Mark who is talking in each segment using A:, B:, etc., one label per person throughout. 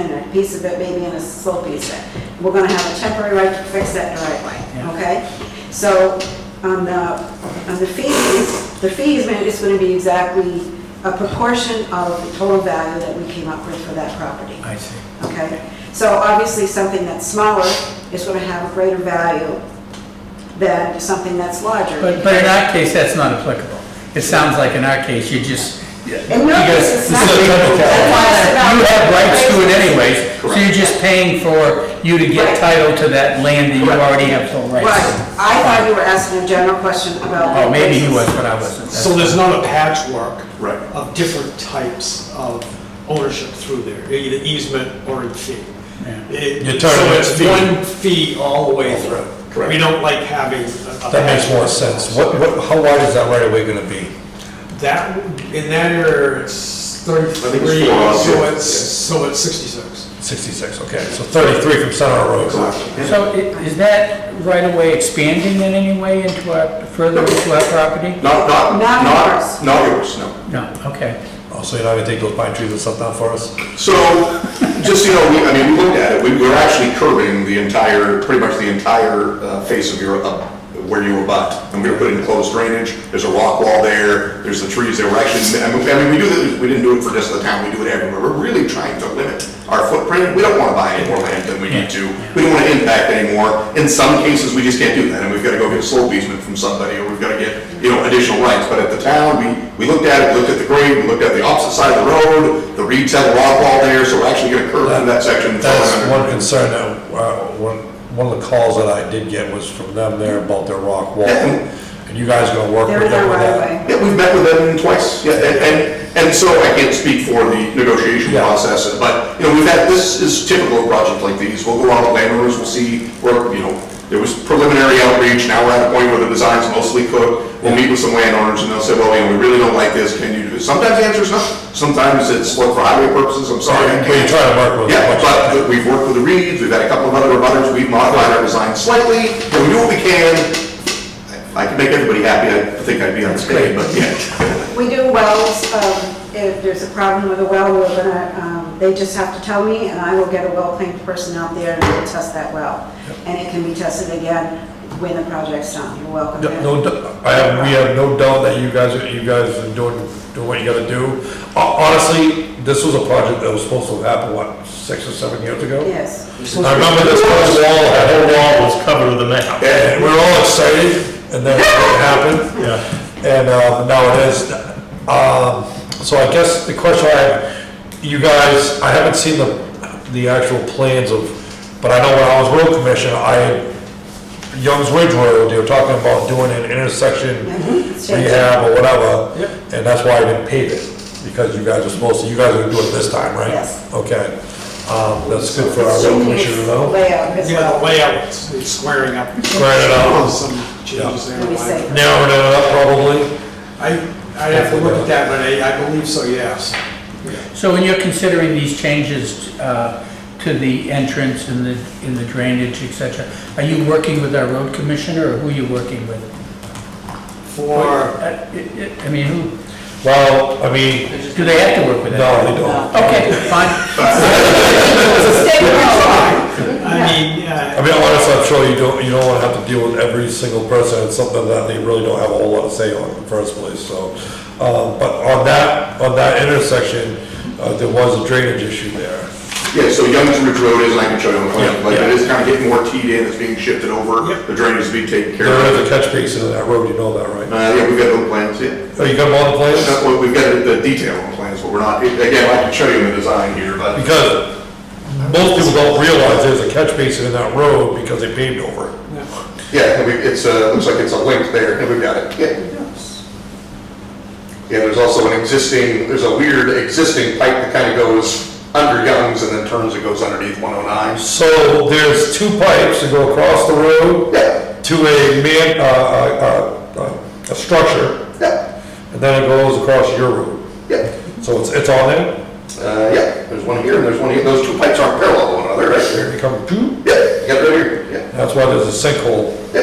A: and a piece of it maybe in a slow piece of it. We're gonna have a temporary right to fix that driveway, okay? So on the, on the fees, the fees, man, it's gonna be exactly a proportion of the total value that we came up with for that property.
B: I see.
A: Okay, so obviously, something that's smaller is going to have a greater value than something that's larger.
B: But, but in our case, that's not applicable. It sounds like in our case, you just.
A: In your case, it's not.
B: You have rights to it anyways, so you're just paying for you to get
A: Right.
B: title to that land that you already have full rights.
A: Right,
B: to.
A: I thought you were asking a general question about.
B: Oh, maybe he was, but I wasn't.
C: So there's not a patchwork
D: Right.
C: of different types of ownership through there, either easement or in fee.
B: Yeah.
C: It-
E: You're talking about fee.
C: So it's one fee all the way through.
D: Correct.
C: We don't like having. a- a
E: That makes more
C: patchwork.
E: sense. What, what, how wide is that right of way gonna be?
C: That, in that area, it's
D: think it's
C: thirty-three,
D: four out
C: so
D: here.
C: it's, so it's sixty-six.
E: Sixty-six, okay, so thirty-three from Center Road.
D: Exactly.
B: So i- is that right of way expanding in any way into our, further into our property?
D: Not, not,
A: Not
D: not,
A: yours.
D: not yours, no.
B: No, okay.
E: Oh, so you're not gonna take those pine trees and stuff down for us?
D: So, just, so you know, we, I mean, we looked at it, we, we're actually curving the entire, pretty much the entire uh, face of your, uh, where you abut. And we were putting closed drainage, there's a rock wall there, there's the trees there, we're actually, I mean, I mean, we do, this- we didn't do it for just the town, we do it everywhere. We're really trying to limit our footprint, we don't wanna buy any more land than we need to. We don't wanna impact anymore. In some cases, we just can't do that, and we've gotta go get a slope easement from somebody, or we've gotta get, you know, additional rights. But at the town, we, we looked at it, we looked at the grade, we looked at the opposite side of the road, the reeds had a rock wall there, so we're actually gonna curve through that section. and throw it
E: That's
D: under.
E: one concern that, uh, one, one of the calls that I did get was from them there about their rock wall. And you guys gonna work
A: They're
E: with
A: in our
E: them with
A: right of way.
E: that?
D: Yeah, we've met with them twice, yeah, and, and, and so I can't speak for the negotiation
E: Yeah.
D: process, but, you know, we've had, this is typical of projects like these, we'll go out with landowners, we'll see, where, you know, there was preliminary outreach, now we're at a point where the design's mostly cooked, we'll meet with some landowners, and they'll say, well, you know, we really don't like this, can you do this? Sometimes the answer is no, sometimes it's, look, for highway purposes, I'm sorry, I
E: But you're
D: can't.
E: trying to work with.
D: Yeah, but we've worked with the Reeds, we've had a couple of other abutters, we've modified our design slightly, and we do what we can. If I could make everybody happy, I think I'd be on stage, but yeah.
A: We do wells, um, if there's a problem with a well, we're gonna, um, they just have to tell me, and I will get a well-trained person out there and we'll test that well. And it can be tested again when the project's done, you're welcome.
E: No, no dou- I have, we have no doubt that you guys, you guys are doing, doing what you gotta do. Ho- Honestly, this was a project that was supposed to happen, what, six or seven years ago?
A: Yes.
E: I remember this first wall, that whole wall was
F: covered with a map.
E: And we were all excited, and then it happened.
F: Yeah.
E: And uh, now it is. Um, So I guess the question I have, you guys, I haven't seen the, the actual plans of, but I know when I was road commissioner, I, Youngs Ridge Road, they were talking about doing an intersection
A: Mhm.
E: rehab or whatever. And that's why I didn't pave it, because you guys are supposed to, you guys are gonna do it this time, right?
A: Yes.
E: Okay. Um, That's good for our road commissioner to know.
A: Layout as
C: Yeah, the
A: well.
C: layout, it's it's squaring up.
E: Squaring it up.
C: Some changes there.
A: Let me see.
E: Narrowing it up probably.
C: I, I have to look at that, but I, I believe so, yes.
B: So when you're considering these changes uh, to the entrance and the, in the drainage, et cetera, are you working with our road commissioner or who are you working with?
C: For
B: Uh, it- it- I mean, who,
E: Well, I mean,
B: do they have to work with that?
E: no, they don't.
B: Okay, fine.
A: Stay with us.
C: I mean,
E: I
C: uh,
E: mean, honestly, I'm sure you don't, you don't wanna have to deal with every single person, it's something that they really don't have a whole lot to say on in the first place, so. Um, but on that, on that intersection, uh, there was a drainage issue there.
D: Yeah, so Young's Ridge Road is, and I can show you on the plan,
E: Yeah,
D: but it
E: yeah.
D: is kind of getting more teed in, it's being shifted over,
C: Yep.
D: the drainage is being taken care
E: There
D: of.
E: is a catch basin in that road, you know that, right?
D: Uh, yeah, we've got the plans, yeah.
E: Oh, you got them on the plans?
D: That's what- We've got the detail on the plans, but we're not, again, I can show you the design here, but
E: Because most people don't realize there's a catch basin in that road because they paved over it.
C: uh,
D: yeah, and we- it's, uh, looks like it's a link there, and we've got it, yeah. Yeah, there's also an existing, there's a weird existing pipe that kind of goes under Young's and then turns and goes underneath 109.
E: So there's two pipes that go across the road
D: Yeah,
E: to a man, uh, uh, uh, uh, a structure.
D: yeah,
E: And then it goes across your road.
D: yeah.
E: So it's, it's on there,
D: Uh, yeah, there's one here and there's one here. Those two pipes aren't parallel to one another, right there.
E: they come, phew.
D: Yeah, yeah, right here, yeah,
E: that's why there's a sinkhole.
D: yeah.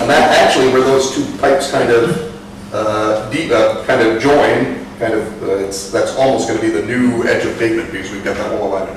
D: And that actually where those two pipes kind of, uh, deep, uh, kind of join, kind of, uh, it's, that's almost gonna be the new edge of pavement because we've got that whole line of